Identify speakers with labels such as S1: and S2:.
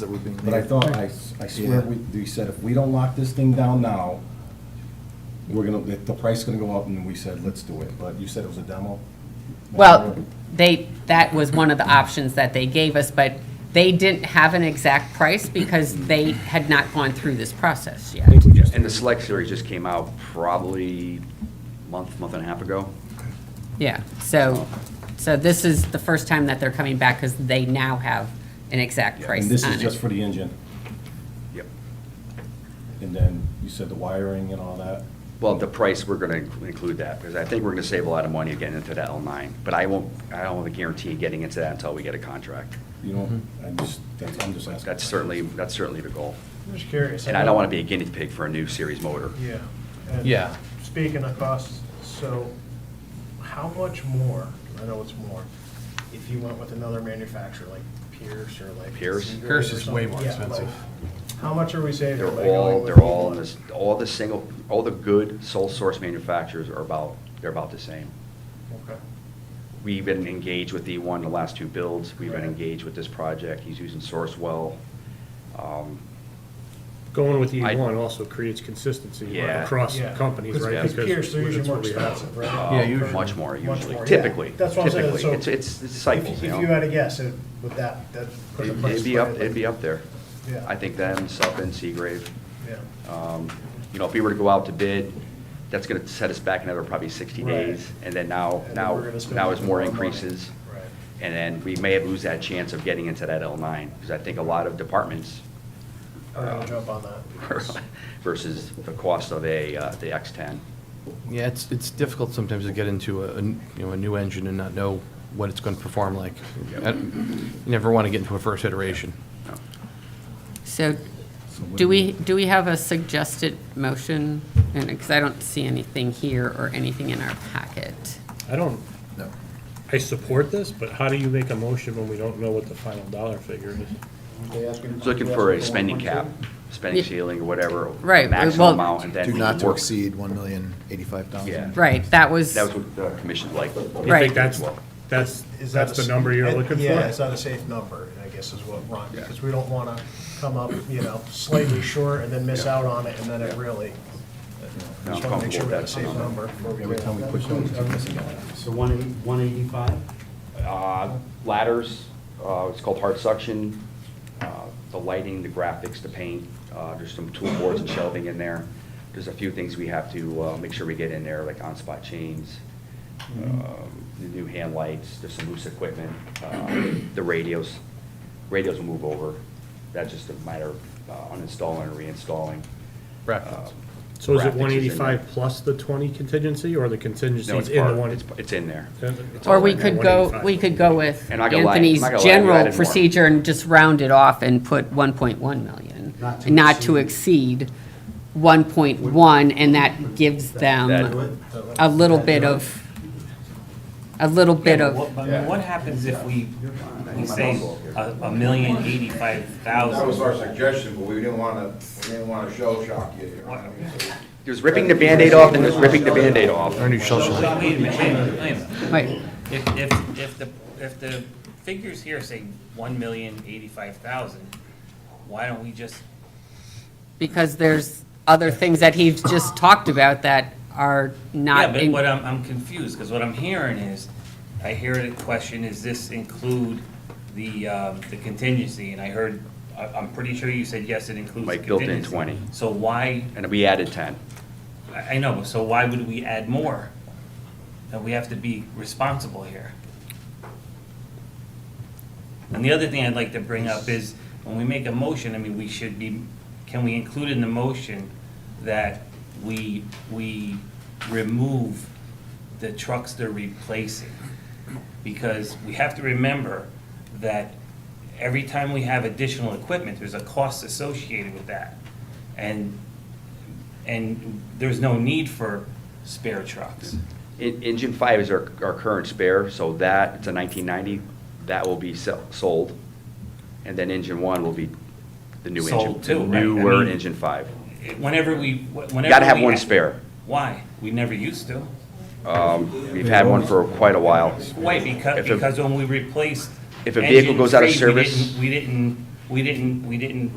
S1: that were being made.
S2: But I thought, I, I swear, we, we said, if we don't lock this thing down now, we're gonna, the- the price is gonna go up, and we said, let's do it, but you said it was a demo?
S3: Well, they, that was one of the options that they gave us, but they didn't have an exact price because they had not gone through this process yet.
S4: And the Select Series just came out probably month, month and a half ago.
S3: Yeah, so, so this is the first time that they're coming back because they now have an exact
S4: Yeah,
S3: price
S2: And this
S3: on
S2: is
S3: it.
S2: just for the engine,
S4: Yep.
S2: and then you said the wiring and all that,
S4: Well, the price, we're going to include that, because I think we're going to save a lot of money getting into that L9. But I won't, I don't have a guarantee getting into that until we get a contract.
S2: you know, I just, that's, I'm just asking.
S4: Mm-hmm. That's certainly, that's certainly the goal.
S5: I'm just curious.
S4: And I don't want to be a guinea pig for a new series motor.
S5: Yeah. And
S1: Yeah.
S5: Speaking of costs, so how much more, I know it's more, if you went with another manufacturer like Pierce or like.
S4: Pierce?
S5: Seagate or
S1: Pierce is way
S5: something?
S1: more
S5: Yeah,
S1: expensive.
S5: like, How much are we saving?
S4: They're
S5: by going
S4: all,
S5: with
S4: they're all, in
S5: one?
S4: this- all the single, all the good sole source manufacturers are about, they're about the same.
S5: Okay.
S4: We've been engaged with E1 the last two builds. We've been
S5: Right.
S4: engaged with this project. He's using Sourcewell. Um,
S6: Going with
S4: I-
S6: E1 also creates consistency
S4: Yeah.
S6: across
S5: Yeah.
S6: companies, right?
S5: Because Pierce, they're usually
S6: that's
S5: more
S6: what we have.
S5: expensive, right?
S4: Uh,
S1: Yeah, usually.
S4: Much more usually,
S5: more, yeah.
S4: typically.
S5: That's what I'm saying,
S4: typically.
S5: so.
S4: It's, it's it's
S5: if-
S4: cycles, you
S5: If you had
S4: know?
S5: a guess, it, would that, that put the
S4: It'd
S5: price.
S4: it'd be up,
S5: slightly-
S4: it'd be up there.
S5: Yeah.
S4: I think them, Sutton, Seagrave.
S5: Yeah.
S4: Um, You know, if we were to go out to bid, that's gonna set us back another probably sixty
S5: Right.
S4: days. And then now,
S5: And then
S4: now,
S5: we're gonna spend
S4: now is more
S5: more money.
S4: increases.
S5: Right.
S4: And then we may lose that chance of getting into that L nine, because I think a lot of departments
S5: Or I'll jump on that. because-
S4: versus the cost of a, uh, the X ten.
S1: Yeah, it's, it's difficult sometimes to get into a, a n- you know, a new engine and not know what it's going to perform like.
S4: Yep.
S1: I- You never want to get into a first iteration.
S3: So do we, do we have a suggested motion? And, because I don't see anything here or anything in our packet.
S6: I don't, I support this, but how do you make a motion when we don't know what the final dollar figure is?
S2: They asking-
S4: Looking for a spending cap, spending
S3: Yeah.
S4: ceiling or whatever.
S3: Right, well-
S4: Maximum amount and then.
S7: Do
S4: we
S7: not to
S4: work-
S7: exceed $1,085,000.
S4: Yeah.
S3: Right, that was,
S4: That was what the commission liked.
S6: You
S3: Right.
S6: think that's, that's,
S5: Is that
S6: that's
S5: a
S6: the
S5: s-
S6: number you're
S5: and-
S6: looking for?
S5: Yeah, is that a safe number, I guess is what Ron, because we don't want to come up, you know, slightly short and then miss out on it, and then it really,
S4: No,
S5: just
S4: I'm
S5: want to make
S4: comfortable
S5: sure we
S4: with
S5: have a
S4: that
S5: safe
S4: number.
S5: number.
S2: Every time we push them, we're missing out.
S8: So one eighty, one eighty-five?
S4: Uh, Ladders, uh, it's called hard suction, uh, the lighting, the graphics, the paint, uh, there's some tool boards and shelving in there. There's a few things we have to uh, make sure we get in there, like on-spot chains, um, the new hand lights, there's some loose equipment, uh, the radios. Radios will move over, that's just a matter of uh, uninstalling and reinstalling.
S1: Brackets.
S4: Um,
S6: So is
S4: graphics
S6: it
S4: in there.
S6: 185 plus the 20 contingency, or the contingency's
S4: No, it's
S6: in the
S4: part-
S6: one?
S4: it's, it's in there.
S6: it's
S3: or
S4: all
S3: we
S4: in there,
S3: could go,
S6: 185.
S3: we could go with
S4: And I got lied-
S3: Anthony's
S4: I got lied, you added
S3: general
S4: more.
S3: procedure and just round it off and put 1.1 million.
S8: Not to
S3: Not to exceed 1.1, and that gives
S4: That-
S3: them a little bit of, a little bit
S8: What,
S3: of,
S8: but what happens if we, we say a, a million eighty-five
S9: That was
S8: thousand?
S9: our suggestion, but we didn't want to, we didn't want to show shock you here. I mean, so-
S4: There's ripping the Band-Aid off and there's ripping the Band-Aid off.
S1: Our new shell
S8: So,
S1: shock.
S8: so wait a minute, wait a minute, wait a minute.
S3: wait,
S8: If, if, if the, if the figures here say one million eighty-five thousand, why don't we just,
S3: because there's other things that he's just talked about that are
S8: yeah,
S3: not
S8: but
S3: in.
S8: what I'm, I'm confused, because what I'm hearing is, I hear the question, is this include the, um, the contingency? And I heard, I, I'm pretty sure you said, yes, it includes the
S4: Like built in
S8: contingency.
S4: 20.
S8: So why
S4: And we added 10.
S8: I I know, so why would we add more? That we have to be responsible here. And the other thing I'd like to bring up is, when we make a motion, I mean, we should be, can we include in the motion that we, we remove the trucks they're replacing? Because we have to remember that every time we have additional equipment, there's a cost associated with that. And and there's no need for spare trucks.
S4: En- Engine 5 is our, our current spare, so that, it's a 1990, that will be sell- sold. And then Engine 1 will be the new engine.
S8: Sold too,
S4: the
S8: right. I
S4: Newer
S8: mean-
S4: Engine 5.
S8: Whenever we, whenever.
S4: Gotta have
S8: we-
S4: one spare.
S8: Why? We never used to.
S4: Um, We've had one for quite a while.
S8: Why? Because,
S4: If a-
S8: because when we replaced.
S4: If a vehicle
S8: engine
S4: goes out of
S8: three, we
S4: service-
S8: didn't- We didn't we didn't, we didn't